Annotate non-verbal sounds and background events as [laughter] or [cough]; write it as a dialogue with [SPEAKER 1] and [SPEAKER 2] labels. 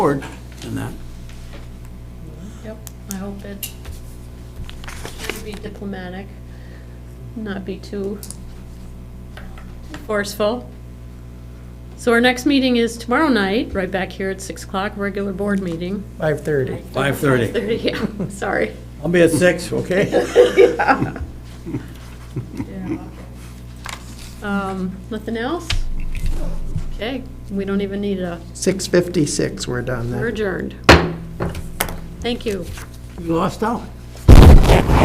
[SPEAKER 1] forward in that.
[SPEAKER 2] Yep, I hope it, should be diplomatic, not be too forceful. So our next meeting is tomorrow night, right back here at 6 o'clock, regular board meeting.
[SPEAKER 3] 5:30.
[SPEAKER 1] 5:30.
[SPEAKER 2] 5:30, yeah, [laughs] sorry.
[SPEAKER 3] I'll be at 6, okay?
[SPEAKER 2] Um, Nothing else? Okay, we don't even need a,
[SPEAKER 4] 6:56, we're done then.
[SPEAKER 2] we're adjourned. Thank you.
[SPEAKER 1] You lost out.